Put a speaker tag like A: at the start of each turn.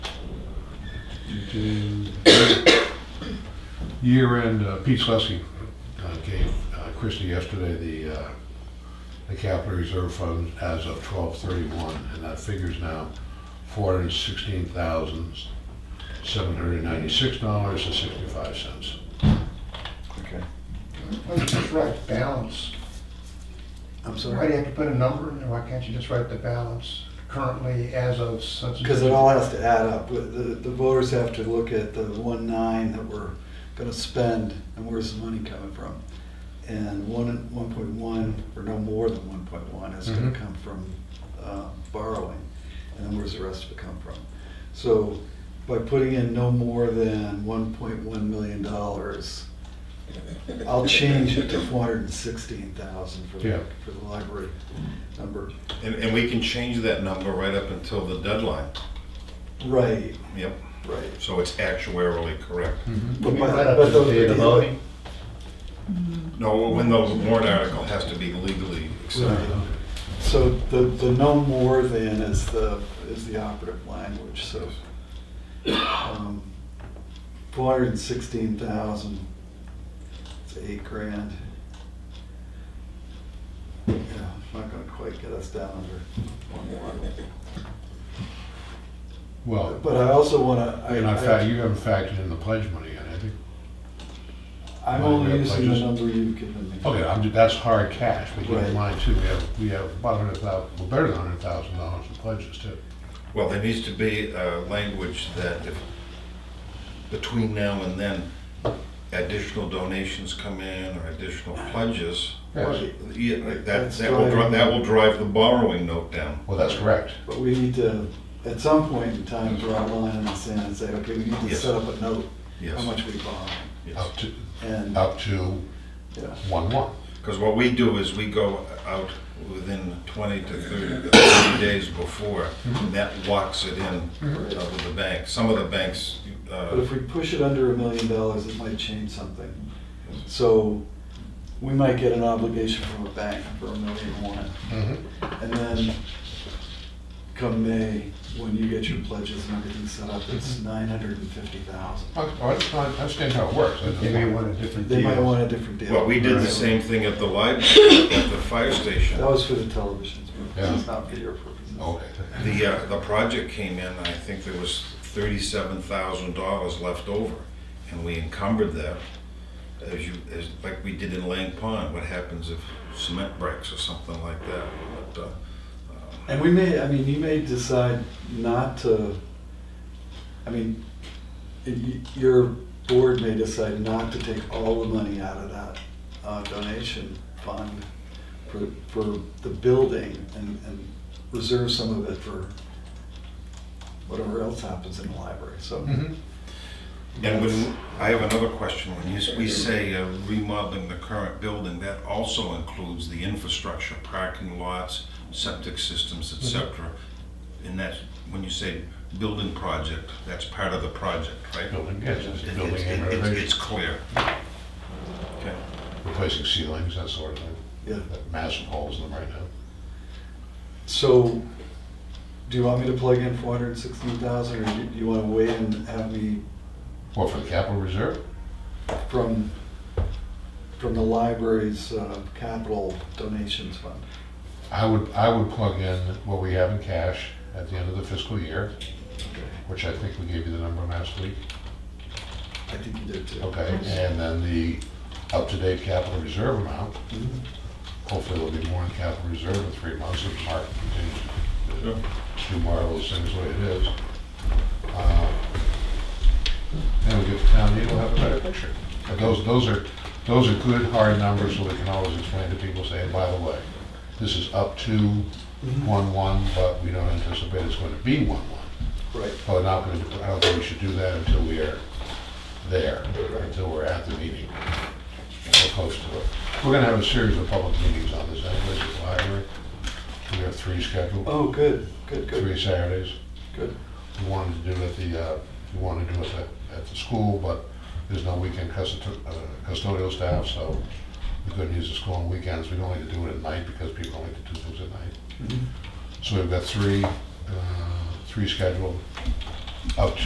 A: to year-end, uh, Pete Slesky uh, gave uh, Christie yesterday the, uh, the capital reserve fund as of twelve thirty-one, and that figure's now four hundred and sixteen thousand, seven hundred and ninety-six dollars and sixty-five cents.
B: Okay.
C: Why don't you just write balance?
B: I'm
C: Why do you
B: sorry?
C: have to put a number in there? Why can't you just write the balance currently as of such?
B: Because it all has to add up. The, the voters have to look at the one nine that we're gonna spend and where's the money coming from? And one, one point one, or no more than one point one, is gonna
A: Mhm.
B: come from, uh, borrowing. And then where's the rest of it come from? So by putting in no more than one point one million dollars, I'll change it to four hundred and sixteen thousand for
A: Yeah.
B: the, for the library number.
D: And, and we can change that number right up until the deadline.
B: Right,
D: Yep,
B: right.
D: so it's actuarially correct.
A: Mm-hmm.
B: But
C: You
B: by-
C: can write up
B: but
C: to
B: those-
C: the date of voting.
D: No, when the warrant article has to be legally accepted.
B: Right. So the, the no more than is the, is the operative language, so. um, Four hundred and sixteen thousand, it's eight grand. Yeah, it's not gonna quite get us down under one one.
A: Well,
B: But I also wanna, I,
A: you're not fact,
B: I-
A: you haven't factored in the pledge money yet, I think.
B: I'm only using the number you've given me.
A: Okay, I'm, ju- that's hard cash, but keep
B: Right.
A: in mind too, we have, we have about a hundred thousand, well, better than a hundred thousand dollars in pledges too.
D: Well, there needs to be uh language that if, between now and then, additional donations come in or additional pledges,
B: Right,
D: yeah, like that, that will, dri- that will drive the borrowing note down.
A: Well, that's correct.
B: But we need to, at some point in time, draw a line in the sand and say, okay, we need to
D: Yes.
B: set up a note, how
D: Yes,
B: much we borrow.
D: yes.
A: Up to,
B: And,
D: Oh.
A: up to
B: yeah.
A: one one.
D: Because what we do is we go out within 20 to 30 to 30 days before,
B: Mm-hmm.
D: and that locks it in uh,
A: Mm-hmm.
D: with the bank. Some of the banks,
B: But
D: uh,
B: if we push it under a million dollars, it might change something. So we might get an obligation from a bank for a million one.
A: Mm-hmm.
B: And then come May, when you get your pledges and everything set up, it's
D: Mm-hmm.
B: nine hundred and fifty thousand.
A: I I just want- I understand how it works. I just-
E: They may want a different deal.
B: They might want a different deal.
D: well, we did the same thing at the library, at the fire station.
B: That was for the televisions, but
A: Yeah.
B: it's not for your purposes.
A: Okay.
D: The, uh, the project came in, I think there was thirty-seven thousand dollars left over, and we encumbered that. As you, as, like we did in Lang Pond, what happens if cement breaks or something like that, but, uh,
B: And we may, I mean, you may decide not to, I mean, y- y- your board may decide not to take all the money out of that uh, donation fund for, for the building and, and reserve some of it for whatever else happens in the library, so.
A: Mhm.
D: And when, I have another question, when you, s- we say uh, remodeling the current building, that also includes the infrastructure, parking lots, septic systems, et cetera. And that's, when you say building project, that's part of the project, right?
A: Building, yes, it's
D: It-
A: building
D: it's-
A: and
D: it's- It's
A: renovation,
D: clear. Okay.
A: replacing ceilings, that sort of thing.
B: Yeah,
A: Got Massive holes in them right now.
B: so, do you want me to plug in four hundred and sixteen thousand, or do you- do you wanna wait and have me
A: What, for the capital reserve?
B: from, from the library's uh, capital donations fund.
A: I would, I would plug in what we have in cash at the end of the fiscal year, which I think we gave you the number last week.
B: I think you did too.
A: Okay, and then the up-to-date capital reserve amount.
B: Mhm.
A: Hopefully there'll be more in capital reserve in three months if Mark continues to do marvelous things the way it is. Uh, Then we get to town meeting, we'll have a better picture. But those, those are, those are good, hard numbers, so we can always explain to people, say, by the way, this is up to Mm-hmm. one-one, but we don't anticipate it's going to be one-one.
B: Right,
A: Well, we're Oh, not gonna, I don't think we should do that until we are there, until we're at the meeting, or close to it. We're gonna have a series of public meetings on this, anyways, at the library. We have three scheduled,
B: oh, good, good,
A: three
B: good,
A: Saturdays.
B: good.
A: We wanted to do it at the, uh, we wanted to do it at, at the school, but there's no weekend custo- uh, custodial staff, so we couldn't use the school on weekends. We don't like to do it at night because people don't like to do things at night.
B: Mhm.
A: So we've got three, uh, three scheduled, up to